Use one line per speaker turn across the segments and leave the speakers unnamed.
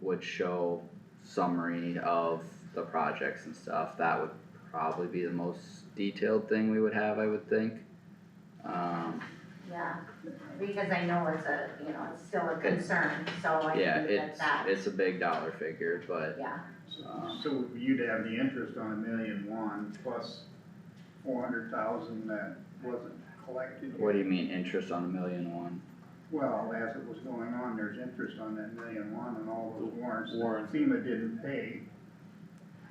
would show summary of the projects and stuff, that would probably be the most detailed thing we would have, I would think. Um,
yeah, because I know it's a, you know, it's still a concern, so I
yeah,
think that
it's,
that,
it's a big dollar figure, but,
yeah,
um,
So you'd have the interest on a million one plus four hundred thousand that wasn't collected.
what do you mean, interest on a million one?
Well, as it was going on, there's interest on that million one and all those warrants that
Warrants.
FEMA didn't pay.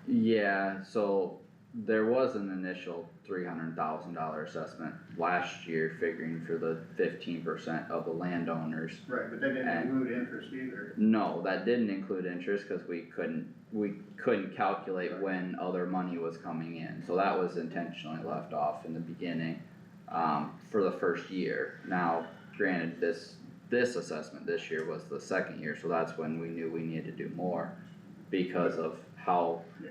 Yeah, so there was an initial three hundred thousand dollar assessment last year figuring for the fifteen percent of the landowners.
Right, but they didn't
And-
include interest either.
No, that didn't include interest, cause we couldn't, we couldn't calculate when other money was coming in, so that was intentionally left off in the beginning. Um, for the first year, now granted, this, this assessment this year was the second year, so that's when we knew we needed to do more. Because of how
Yeah.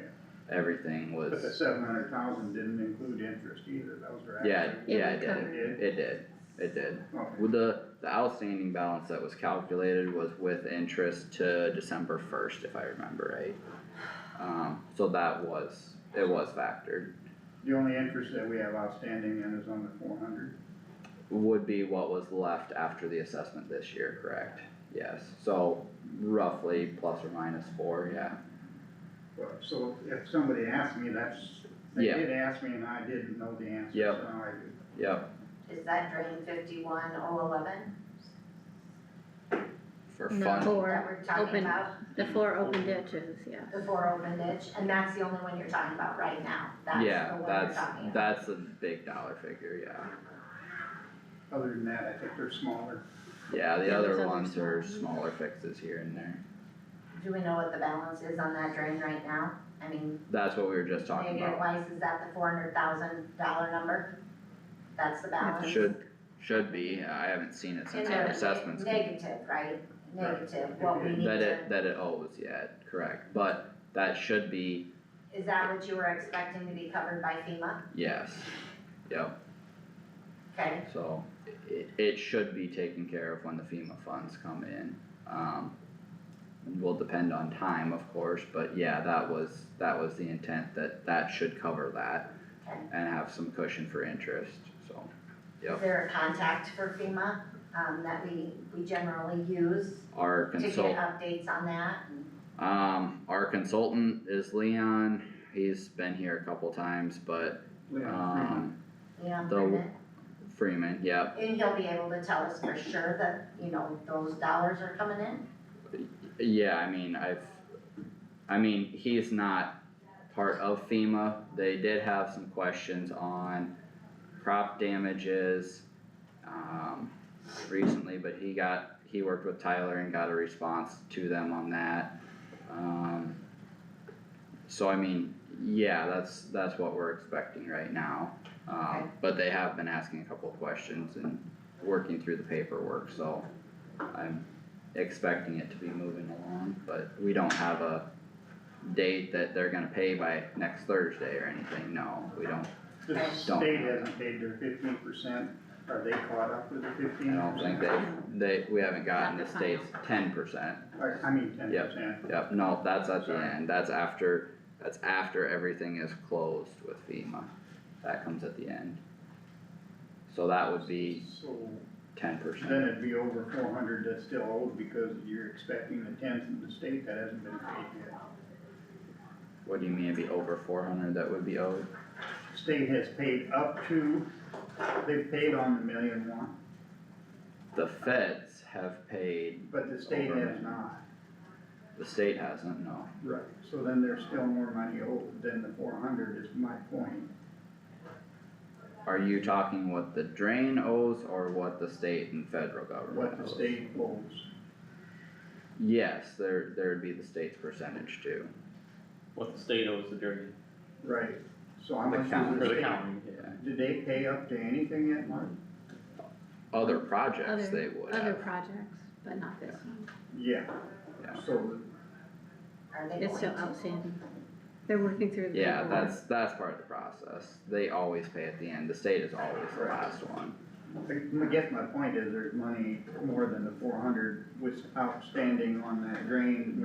everything was.
But the seven hundred thousand didn't include interest either, that was their.
Yeah,
actual-
yeah, it
Yeah, we
did,
It
it did, it did.
did? Okay.
With the, the outstanding balance that was calculated was with interest to December first, if I remember right. Um, so that was, it was factored,
The only interest that we have outstanding then is on the four hundred.
would be what was left after the assessment this year, correct? Yes, so roughly plus or minus four, yeah,
Well, So if somebody asked me, that's, they
Yeah.
did ask me and I didn't know the answer,
Yep.
so I did.
yep,
is that drain fifty-one oh eleven
for
No.
fun,
that
Four
we're talking
open-
about?
the four open ditches, yeah.
The four open ditch, and that's the only one you're talking about right now, that's
yeah,
the one you're
that's,
talking about.
that's a big dollar figure, yeah.
Other than that, I think they're smaller.
Yeah, the
Yeah, those
other
other
ones are
small
smaller fixes here and there.
Do we know what the balance is on that drain right now? I mean,
That's what we were just talking
maybe
about.
it lies, is that the four hundred thousand dollar number? That's the balance?
Should, should be, I haven't seen it since
And
our
the
assessments.
Negative, right? Negative, what we need
That
to,
it, that it owes, yeah, correct, but that should be,
is that what you were expecting to be covered by FEMA?
yes, yep,
Okay,
so it, it should be taken care of when the FEMA funds come in. Um, will depend on time, of course, but yeah, that was, that was the intent, that that should cover that
okay.
and have some cushion for interest, so. Yep.
Is there a contact for FEMA, um, that we, we generally use
Our
to get
consultant
updates on that?
Um, our consultant is Leon, he's been here a couple times, but, um,
Yeah,
The- Freeman, yep,
and he'll be able to tell us for sure that, you know, those dollars are coming in?
yeah, I mean, I've, I mean, he's not part of FEMA, they did have some questions on crop damages, um, recently, but he got, he worked with Tyler and got a response to them on that. Um, so I mean, yeah, that's, that's what we're expecting right now.
Okay.
Um, but they have been asking a couple of questions and working through the paperwork, so I'm expecting it to be moving along, but we don't have a date that they're gonna pay by next Thursday or anything, no, we don't,
The
Don't.
state hasn't paid their fifteen percent, are they caught up with the
I
fifteen?
don't think they, they, we haven't gotten the
Not the final.
state's ten percent.
I, I mean, ten
Yep.
percent.
Yep, no, that's at the
Sorry.
end, that's after, that's after everything is closed with FEMA, that comes at the end. So that would be
So
ten
then
percent,
it'd be over four hundred that's still owed because you're expecting the ten from the state that hasn't been paid yet.
what do you mean, it'd be over four hundred that would be owed?
State has paid up to, they've paid on the million one,
The feds have paid,
but the state
Over.
has not.
the state hasn't, no,
Right. So then there's still more money owed than the four hundred is my point.
are you talking what the drain owes or what the state and federal government
What
owes?
the state owes.
Yes, there, there'd be the state's percentage too,
What the state owes the jury,
Right. So how
The
much is
county.
or
the
the
state?
county,
yeah,
Did they pay up to anything yet, Mark?
other projects
Other-
they would
Other
have,
projects, but not this one.
Yeah,
yeah.
so
Are they going to?
It's still outstanding. They're working through the
Yeah,
paperwork.
that's, that's part of the process, they always pay at the end, the state is always the last one,
I guess my point is there's money more than the four hundred was outstanding on that drain